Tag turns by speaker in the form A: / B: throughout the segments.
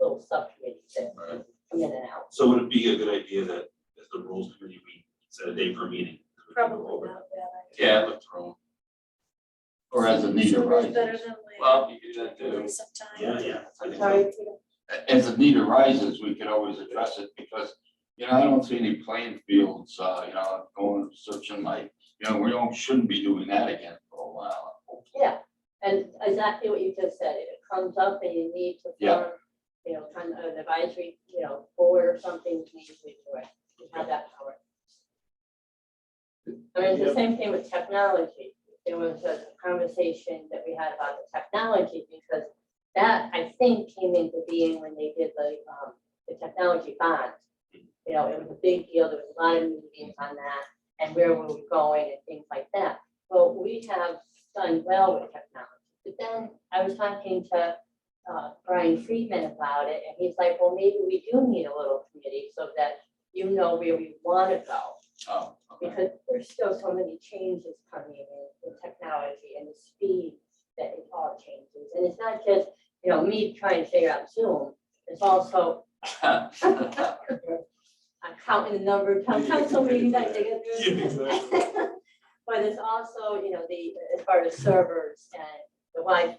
A: whole subcommittee that
B: Right.
A: come in and out.
B: So would it be a good idea that as the rules committee, we set a day for a meeting? We can go over
C: Probably
B: it.
C: not bad.
B: Yeah, I looked wrong.
D: Or as a need
C: Better
D: arises.
C: than later.
E: Well, you could do that too.
C: Sometime.
B: Yeah, yeah. I think so.
C: Sorry.
D: As a need arises, we could always address it because, you know, I don't see any playing fields, uh, you know, going searching like, you know, we don't, shouldn't be doing that again for a while.
A: Yeah, and exactly what you just said, if it comes up and you need to
D: Yeah.
A: form, you know, kind of an advisory, you know, board or something, we usually do it, we have that power. I mean, it's the same thing with technology, there was a conversation that we had about the technology, because that, I think, came into being when they did the, um, the technology bond. You know, it was a big deal, there was a lot of meetings on that, and where were we going and things like that. Well, we have done well with technology. But then I was talking to uh, Brian Friedman about it, and he's like, well, maybe we do need a little committee so that you know where we want to go.
D: Oh, okay.
A: Because there's still so many changes coming in, in technology and the speed that it all changes. And it's not just, you know, me trying to figure out Zoom, it's also I'm counting the number of town
B: Yeah,
A: council meetings I
B: exactly.
A: think. it's-
B: Yeah, exactly.
A: But it's also, you know, the, as far as servers and the Wi-Fi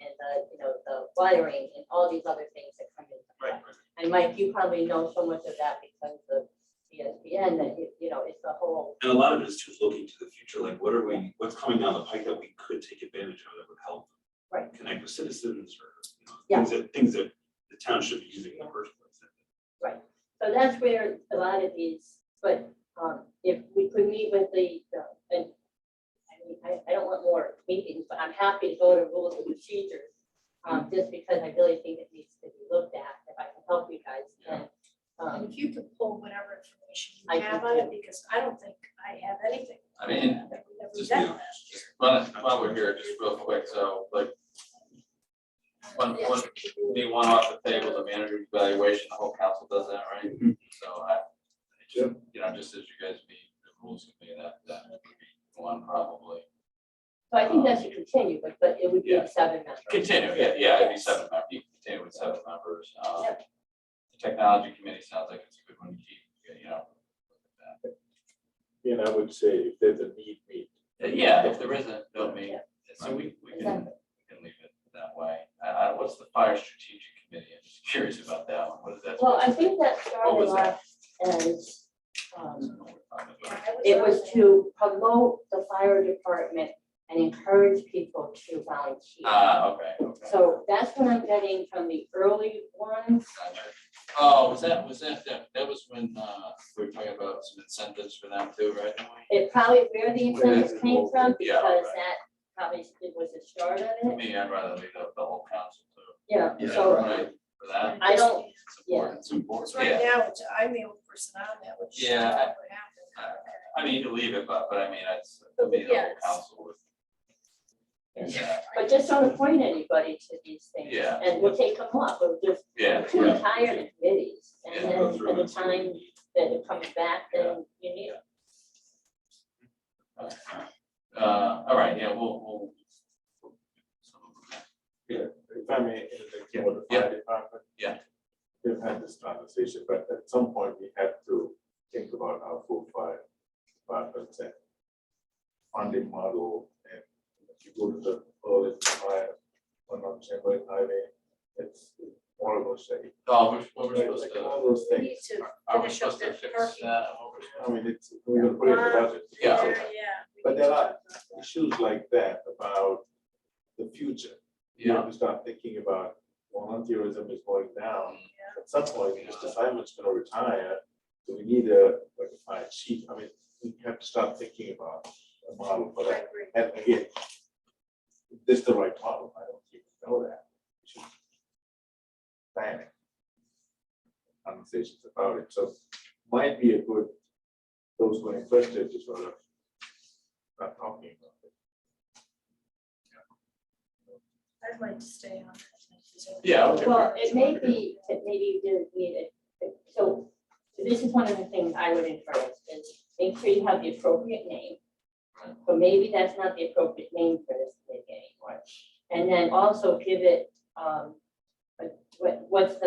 A: and the, you know, the wiring and all these other things that come into play.
B: Right, right.
A: And Mike, you probably know so much of that because of ESPN, that, you- you know, it's the whole
B: And a lot of it is just looking to the future, like what are we, what's coming down the pike that we could take advantage of that would help.
A: Right.
B: Connect with citizens or, you know, things that, things that the town should be using in the first place.
A: So that's where a lot of these, but um, if we could meet with the, the- and I mean, I, I don't want more meetings, but I'm happy to go to rules and procedures. um, Just because I really think it needs to be looked at, if I can help you guys, then. um,
C: And if you could pull whatever information
A: I
C: you have
A: can
C: on it, because I don't think I have anything.
E: I mean,
C: that we never
E: just,
C: done
E: yeah,
C: last year.
E: just run it, while we're here, just real quick, so like. One, one, be one off the table, the manager evaluation, the whole council does that, right? So I. it's, You know, just as you guys be, the rules would be that, that would be one probably.
A: So I think that should continue, but, but it would be
E: Yeah.
A: seven members.
E: Continue, yeah, yeah, it'd be seven members, you can continue with seven members, um. the Technology committee sounds like it's a good one to keep, you know. look
F: And I would say if there's a need, meet.
E: at that. Uh, Yeah, if there isn't, don't mean, so we, we can,
A: Exactly.
E: we can leave it that way. I, I, what's the fire strategic committee? I'm just curious about that one, what is that?
A: Well, I think that
E: What
A: started
E: was that?
A: off as, um,
C: Yeah,
A: It
C: I
A: was
C: on there.
A: to promote the fire department and encourage people to volunteer.
E: Ah, okay, okay.
A: So that's what I'm getting from the early ones.
E: Gotcha. Oh, was that, was that, that, that was when, uh, we were talking about some incentives for them too, right?
A: It probably where the incentives came from
E: Yeah,
A: because
E: right.
A: that probably it was the start
E: To
A: of it.
E: me, I'd rather leave the, the whole council to,
A: Yeah,
D: Yeah,
A: so
E: right, for that.
A: I don't,
E: It's
A: Yeah.
E: important.
D: It's important.
C: Because right
E: yeah.
C: now, it's- I'm the only person on that, which.
E: Yeah, I-
C: never happened.
E: I mean, you can leave it, but, but I mean, it's, to me, the whole
C: Yes.
E: council would. Yeah,
A: but just don't appoint anybody to these things.
E: Yeah.
A: And we'll take them up, we'll just
E: yeah,
A: too tired of committees.
E: Yeah,
A: And then by the time that it comes back, then you need
E: uh, all right, yeah, we'll, we'll. some of them.
F: If I may, interject
E: Yeah,
F: for the
E: yeah.
F: fire department.
E: Yeah.
F: We've had this conversation, but at some point we have to think about our full fire departments and funding model. And if you go to the early fire, one on Chamberlain Highway, it's all of those things.
E: Oh, we're, what we're supposed
F: Like
E: to,
F: all those
C: We
F: things.
C: need to
E: are we
C: finish up
E: supposed to
C: that
E: fix
C: parking.
E: that? What we're supposed
F: I mean, it's, we're gonna put it in the budget.
E: Yeah.
C: There, yeah. we
F: But
C: need
F: there
C: to
F: are-
C: talk about that.
F: Issues like that about the future.
E: to-
F: you
E: Yeah,
F: have to start thinking about volunteerism is going down.
C: Yeah.
F: At some point, Mr. Simon's gonna retire, do we need a, like a fire chief? I mean, we have to start thinking about a model for
C: I
F: that.
C: agree.
F: And again, is this the right model? I don't even know that. We should Plan it. Conversations about it, so might be a good, those who are interested to sort of start talking about it.
C: I'd like to stay on. that.
E: yeah, okay.
A: Well, it may be, that maybe you didn't need it, so this is one of the things I would encourage is make sure you have the appropriate name. But maybe that's not the appropriate name for this committee anymore. And then also give it, um, what, what's the